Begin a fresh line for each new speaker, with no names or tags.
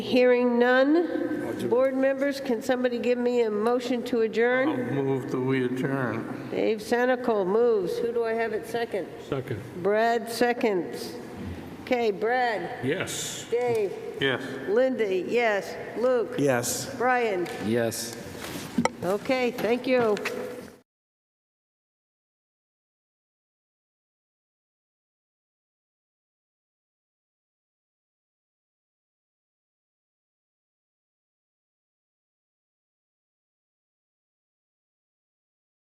Hearing none. Board members, can somebody give me a motion to
I'll
adjourn?
move that we adjourn.
Dave Senical moves. Who do I have at second?
Second.
Brad seconds. Okay, Brad,
Yes.
Dave,
Yes.
Linda, yes. Luke?
Yes.
Brian?
Yes.
Okay, thank you.